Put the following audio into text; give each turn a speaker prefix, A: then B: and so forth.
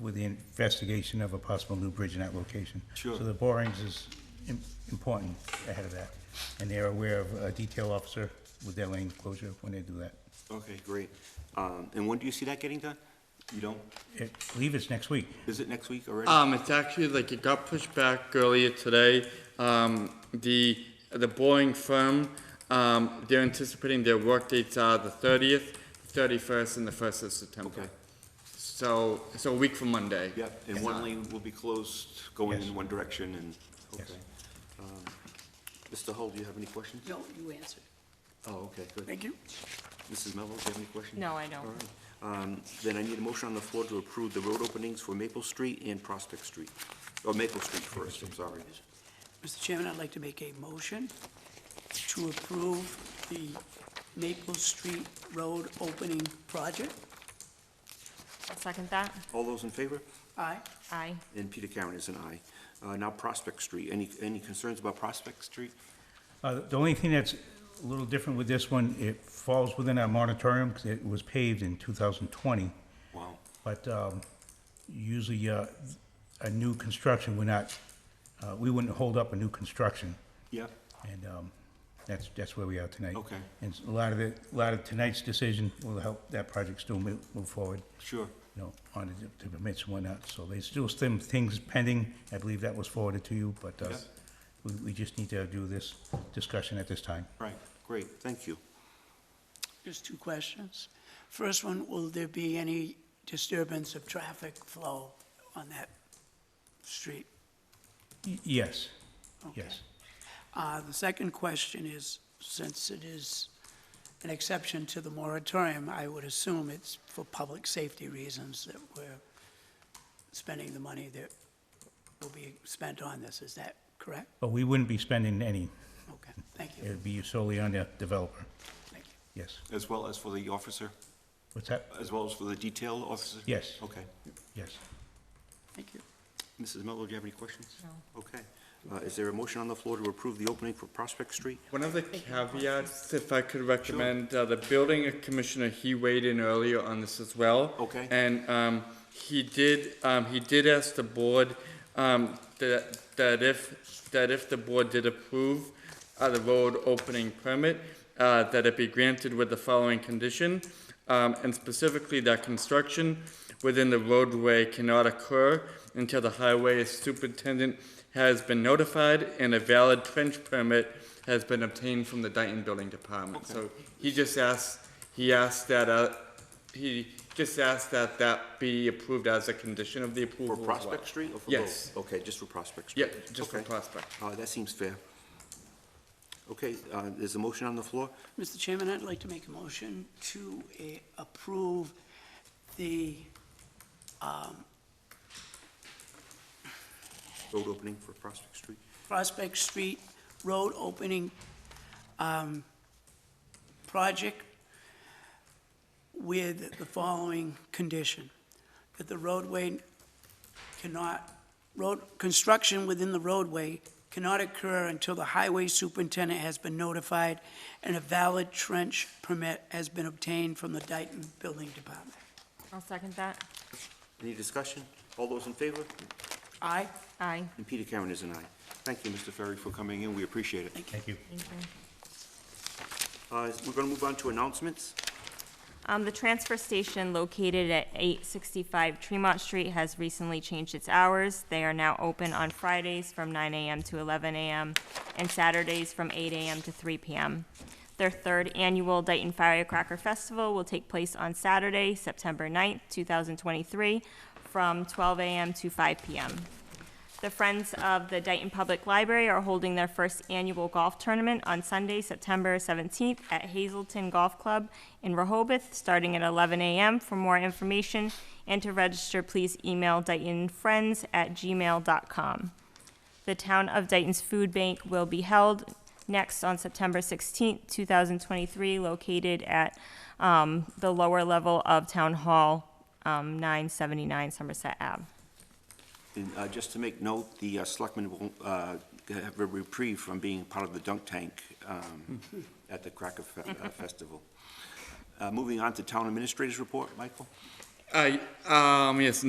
A: with the investigation of a possible new bridge in that location.
B: Sure.
A: So the borings is im- important ahead of that, and they're aware of a detail officer with their lane closure when they do that.
B: Okay, great. Um, And when do you see that getting done? You don't,
A: I believe it's next week.
B: is it next week
C: Uh,
B: already?
D: Um, it's actually like it got pushed back earlier today. Um, the the Boeing firm, um, they're anticipating their work dates are the thirtieth, thirty-first, and the first of September.
B: Okay.
D: So, so a week from Monday.
B: Yep, and one lane will be closed, going in one direction and,
A: Yes.
B: okay. Um, Mr. Hull, do you have any questions?
C: No, you answered.
B: Oh, okay, good.
C: Thank you.
B: Mrs. Mello, do you have any questions?
E: No, I don't.
B: All right. Um, Then I need a motion on the floor to approve the road openings for Maple Street and Prospect Street. Or Maple Street first, I'm sorry.
C: Mr. Chairman, I'd like to make a motion to approve the Maple Street Road opening project.
E: I'll second that.
B: All those in favor?
C: Aye.
E: Aye.
B: And Peter Karen is an aye. Uh, Now Prospect Street, any, any concerns about Prospect Street?
A: Uh, The only thing that's a little different with this one, it falls within our moratorium because it was paved in 2020.
B: Wow.
A: But um, usually, uh, a new construction, we're not, uh, we wouldn't hold up a new construction.
B: Yeah,
A: And um, that's, that's where we are tonight.
B: Okay.
A: And a lot of the, a lot of tonight's decision will help that project still move move forward,
B: sure.
A: you know, on the- the permits and whatnot. So there's still some things pending. I believe that was forwarded to you, but uh,
B: Yeah.
A: we we just need to do this discussion at this time.
B: Right, great, thank you.
C: Just two questions. First one, will there be any disturbance of traffic flow on that street?
A: Y- Yes,
C: Okay.
A: yes.
C: Uh, The second question is, since it is an exception to the moratorium, I would assume it's for public safety reasons that we're spending the money that will be spent on this. Is that correct?
A: But we wouldn't be spending any.
C: Okay, thank
A: It
C: you,
A: would be solely on the developer.
C: thank you.
A: Yes.
B: As well as for the officer,
A: What's that?
B: as well as for the detail officer?
A: Yes.
B: Okay.
A: Yes.
C: Thank you.
B: Mrs. Mello, do you have any questions?
E: No.
B: Okay. Uh, Is there a motion on the floor to approve the opening for Prospect Street?
D: One of the caveats, if I could recommend, uh, the building commissioner, he weighed in earlier on this as well.
B: Okay.
D: And, um, he did, um, he did ask the board, um, that, that if, that if the board did approve, uh, the road opening permit, uh, that it be granted with the following condition, um, and specifically that construction within the roadway cannot occur until the highway superintendent has been notified and a valid trench permit has been obtained from the Dayton Building Department. So he just asked, he asked that, uh, he just asked that that be approved as a condition of the approval
B: For
D: as well.
B: Prospect Street or for both?
D: Yes.
B: Okay, just for Prospect
D: Yeah,
B: Street?
D: just for
B: Okay.
D: Prospect.
B: Uh, That seems fair. Okay, uh, there's a motion on the floor?
C: Mr. Chairman, I'd like to make a motion to eh, approve the,
B: Road opening for Prospect Street?
C: Prospect Street Road opening um, project with the following condition, that the roadway cannot, road, construction within the roadway cannot occur until the highway superintendent has been notified and a valid trench permit has been obtained from the Dayton Building Department.
E: I'll second that.
B: Any discussion? All those in favor?
C: Aye?
E: Aye.
B: And Peter Karen is an aye. Thank you, Mr. Ferry, for coming in, we appreciate it.
A: Thank you.
E: Thank you.
B: Uh, We're going to move on to announcements.
E: Um, the transfer station located at eight sixty-five Tremont Street has recently changed its hours. They are now open on Fridays from nine AM to eleven AM and Saturdays from eight AM to three PM. Their third annual Dayton Firecracker Festival will take place on Saturday, September 9th, two thousand twenty-three, from twelve AM to five PM. The Friends of the Dayton Public Library are holding their first annual golf tournament on Sunday, September 17th at Hazelton Golf Club in Rehoboth, starting at 11 a.m. For more information and to register, please email DaytonFriends@gmail.com. The Town of Dayton's Food Bank will be held next on September 16th, 2023, located at um, the lower level of Town Hall, um, 979 Somerset Ave.
B: And uh, just to make note, the uh, selectmen will uh, have a reprieve from being part of the dunk tank um, at the Cracker Fe- uh, Festival. Uh, Moving on to town administrators report, Michael?
D: I, um, yes,